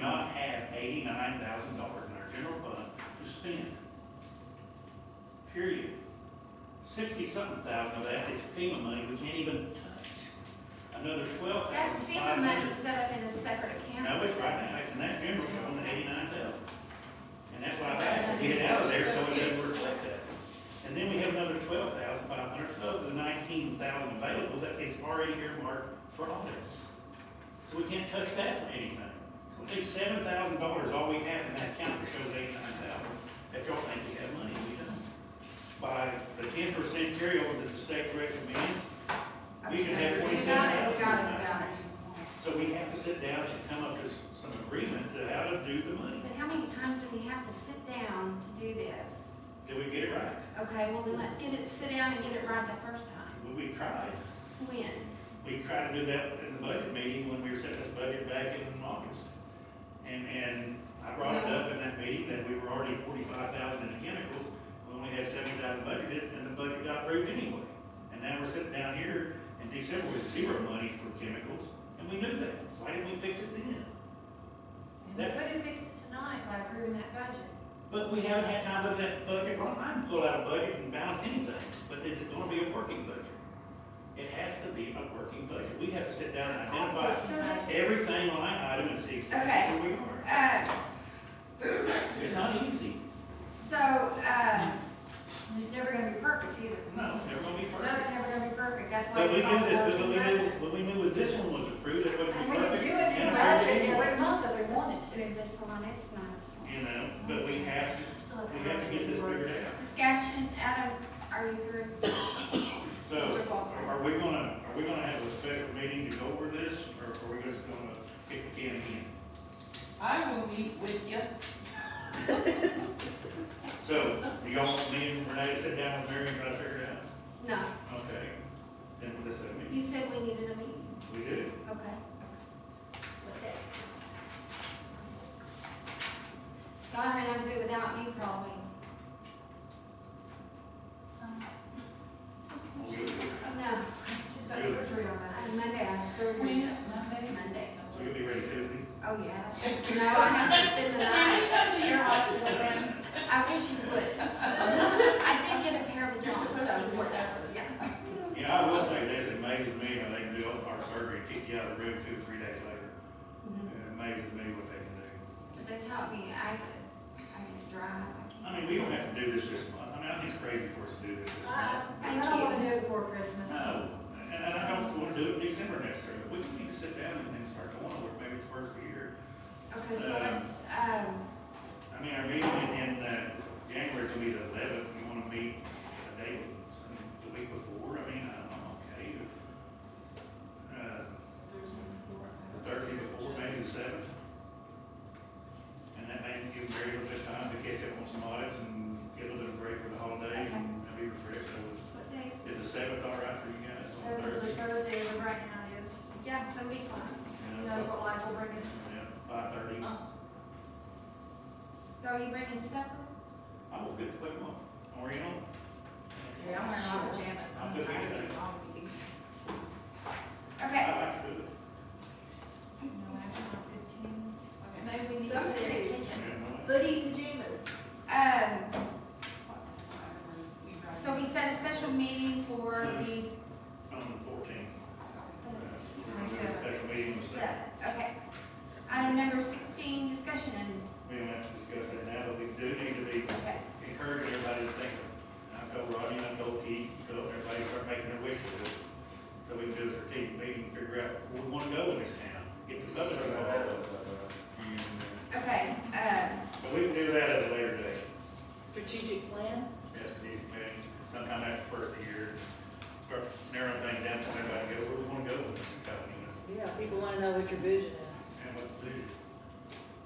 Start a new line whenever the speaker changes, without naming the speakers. not have eighty-nine thousand dollars in our general fund to spend. Period. Sixty-something thousand of that is FEMA money we can't even touch. Another twelve thousand
That's
five
FEMA money
hundred.
set up in a separate account.
No, it's right now, it's in that general showing the eighty-nine thousand. And that's why I've asked to get it out of there so it doesn't reflect that. And then we have another twelve thousand five hundred, of the nineteen thousand available that is already earmarked for audits. So we can't touch that for anything. So at least seven thousand dollars, all we have in that account that shows eighty-nine thousand, that y'all think we have money, we don't. By the ten percent carryover that the state recommends, we should have
We
twenty-seven
got it,
thousand.
we got it, Sally.
So we have to sit down and come up with some agreement to how to do the money.
But how many times do we have to sit down to do this?
Did we get it right?
Okay, well then let's get it, sit down and get it right the first time.
Well, We tried.
When?
We tried to do that in the budget meeting when we were setting the budget back in August. And, and I brought it up in that meeting that we were already forty-five thousand in the chemicals, we only had seventy thousand budgeted, and the budget got approved anyway. And now we're sitting down here in December with zero money for chemicals, and we knew that. Why didn't we fix it then?
We
That-
couldn't fix it tonight by approving that budget.
But we haven't had time to look at that budget, well, I can pull out a budget and balance anything, but is it gonna be a working budget? It has to be a working budget, we have to sit down and identify
So that-
everything line item and see exactly where we are.
Uh,
It's not easy,
so, uh,
And It's never gonna be perfect either.
no, they're gonna be
No, it's
perfect.
never gonna be perfect, that's why
But we
it's
knew
called
this, but
working
we knew,
budget.
but we knew when this one was approved, it wouldn't
And
be
we could
perfect.
do it
And
in a
it
budget
was
every month if we wanted to.
through this one, it's not.
You know, but we have to, we have to get this figured out,
Discussion, Adam, are you through?
so. Are are we gonna, are we gonna have a special meeting to go over this, or are we just gonna kick the can in?
I will meet with you.
So, do y'all want me and Renee to sit down with Mary and try to figure it out?
No,
Okay, then we'll just,
you said we needed a meeting,
we do.
okay. God, I have to do it without me probably.
We'll do it.
No,
She's got surgery on that.
on Monday, I have surgery
When, Monday?
Monday.
So you'll be ready Tuesday?
Oh, yeah. No, I have to spend the night.
come to your hospital room?
I wish you would. I did get a pair of
You're
pajamas,
supposed
so
to do
whatever,
that.
yeah.
You know, I will say this, it amazes me how they can do all our surgery, and kick you out of the room two, or three days later.
Mhm.
It amazes me what they can do.
But that's how it be, I could, I could drive, I
I
can't.
mean, we don't have to do this this month. I mean, I think it's crazy for us to do this this month.
Um, I don't wanna do it before Christmas.
No, and and I don't wanna do it in December necessarily. We need to sit down and then start going over it maybe the first of the year. Uh,
Okay, so let's, um,
I mean, our meeting in, in, uh, January will be the eleventh, you wanna meet a day, some- the week before, I mean, I'm, I'm okay. Uh, the Thursday before, maybe the seventh. And that may give Mary a little bit of time to catch up on some audits and get a little bit of break for the holiday and be refreshed, so
what day,
is the seventh all right for you guys on
Seventh is a
Thursday?
Thursday, but right now is,
yeah, that'd be fun.
who
You
knows
know,
what life will bring us.
yeah, five thirty,
So are you bringing supper?
I will get the quick one, Oriental,
See, I'm wearing my pajamas.
I'm good with anything.
All meetings.
Okay,
I like to do it.
No, after fifteen.
maybe we need to
Some
go to the
cities.
kitchen.
Yeah, no,
Hoodie pajamas.
Um, uh,